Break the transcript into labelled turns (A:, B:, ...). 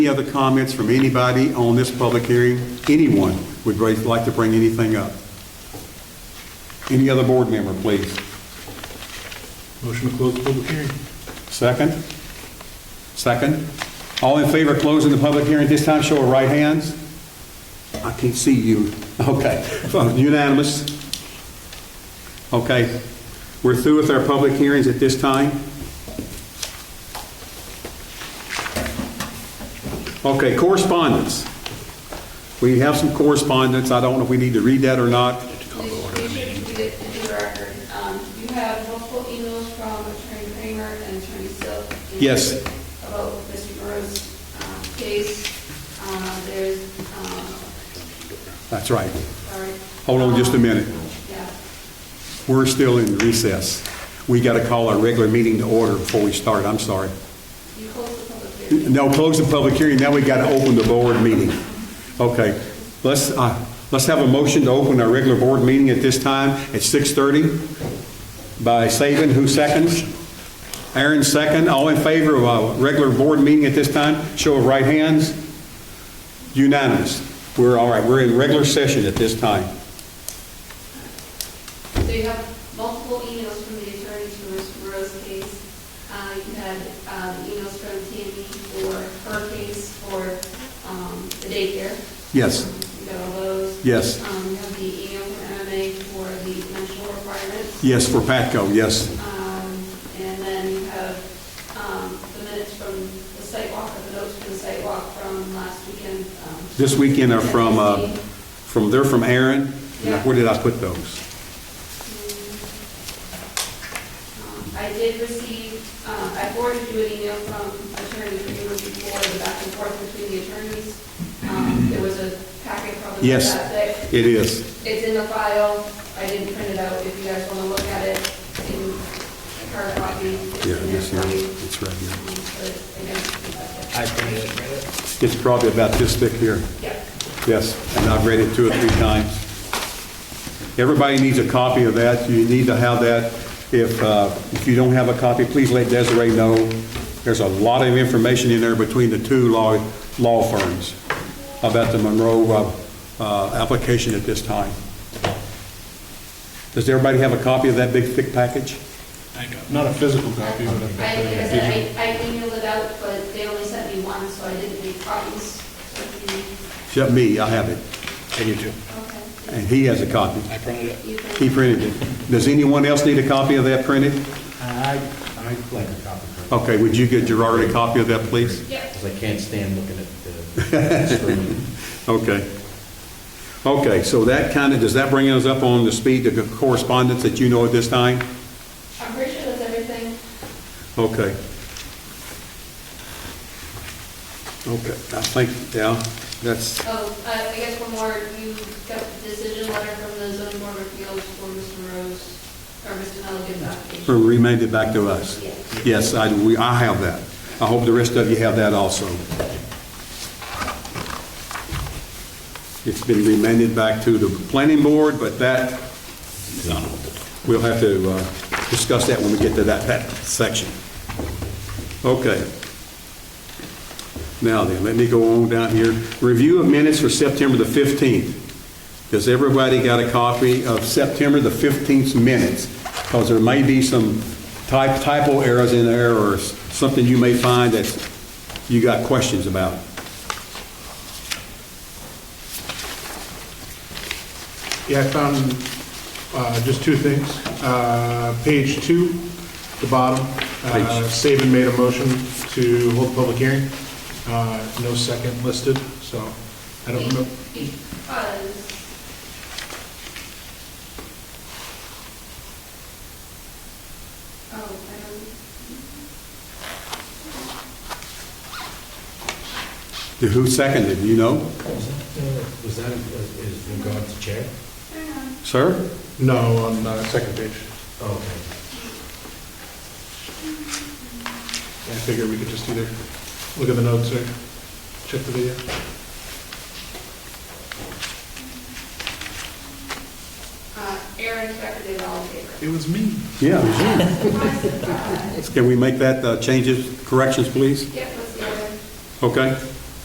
A: Any other comments from anybody on this public hearing? Anyone would ra- like to bring anything up? Any other board member, please?
B: Motion to close the public hearing.
A: Second? Second? All in favor of closing the public hearing at this time, show of right hands? I can't see you. Okay, unanimous? Okay, we're through with our public hearings at this time? Okay, correspondence. We have some correspondence, I don't know if we need to read that or not.
C: You have multiple emails from Attorney Kramer and Attorney Silk.
A: Yes.
C: About Mr. Burrows' um, case. Um, There's, um,
A: That's right.
C: sorry.
A: Hold on just a minute.
C: Yeah.
A: We're still in recess. We got to call our regular meeting to order before we start, I'm sorry.
C: You closed the public hearing.
A: No, close the public hearing, now we got to open the board meeting. Okay, let's, uh, let's have a motion to open our regular board meeting at this time at 6:30 by Saban, who seconds? Aaron second, all in favor of a regular board meeting at this time, show of right hands? Unanimous. We're all right, we're in regular session at this time.
C: So you have multiple emails from the attorney to Mr. Burrows' case. Uh, You had um, emails from Tammy for her case for um, the daycare.
A: Yes.
C: You got all those.
A: Yes.
C: Um, You have the email from MMA for the national requirements.
A: Yes, for Patco, yes.
C: Um, And then you have um, the minutes from the site walk, or the notes from the site walk from last weekend. um,
A: This weekend are from, uh, from, they're from Aaron.
C: Yeah.
A: Where did I put those?
C: Um, I did receive, uh, I forwarded you an email from Attorney Kramer before, the back and forth between the attorneys. Um, There was a packet probably
A: Yes.
C: that thick.
A: It is.
C: It's in the file, I didn't print it out, if you guys want to look at it in hard copy. it's
A: Yeah,
C: in
A: yes,
C: there
A: yeah,
C: for you.
A: it's right here.
C: Um, But again, that's it.
D: I printed it.
A: It's probably about this thick here.
C: Yeah.
A: Yes, and I've read it two or three times. Everybody needs a copy of that. You need to have that. If, uh, if you don't have a copy, please let Desiree know. There's a lot of information in there between the two law, law firms about the Monroe, uh, uh, application at this time. Does everybody have a copy of that big thick package?
B: Not a physical copy, but I've got
C: I, like I
B: the digital.
C: said, I I emailed it out, but they only sent me one, so I didn't make copies. So if you-
A: Except me, I have it,
D: I do too.
C: Okay,
A: and he has a copy.
D: I printed it.
C: you can.
A: He printed it. Does anyone else need a copy of that printed?
E: I, I'd like a copy.
D: Oh.
A: Okay, would you get Gerard a copy of that, please?
C: Yep.
E: Because I can't stand looking at the screen.
A: Okay. Okay, so that kind of, does that bring us up on the speed of the correspondence that you know at this time?
C: I'm pretty sure that's everything.
A: Okay. Okay, I think, yeah, that's,
C: Oh, uh, I guess one more, you got the decision letter from the zoning board of appeals for Mr. Rose, or Mr. Nelligan's
A: for
C: application.
A: remanded back to us. Yes, I, we, I have that. I hope the rest of you have that also. It's been remanded back to the planning board, but that, we'll have to uh, discuss that when we get to that, that section. Okay. Now then, let me go on down here. Review of minutes for September the 15th. Does everybody got a copy of September the 15th's minutes? Because there may be some type typo errors in there or s- something you may find that you got questions about.
B: Yeah, I found uh, just two things. Uh, Page two, the bottom, uh, Saban made a motion to hold the public hearing. Uh, No second listed, so I don't know.
C: Because, oh, I don't.
A: Who seconded, you know?
E: Was that, uh, was that, uh, is regard to chair?
A: Sir?
B: No, on the second page.
E: Okay.
B: I figured we could just either look at the notes or check the video.
C: Uh, Aaron seconded all in favor.
B: It was me.
A: Yeah.
C: Surprise, surprise.
A: Can we make that uh, changes, corrections, please?
C: Yep, that's the other.
A: Okay?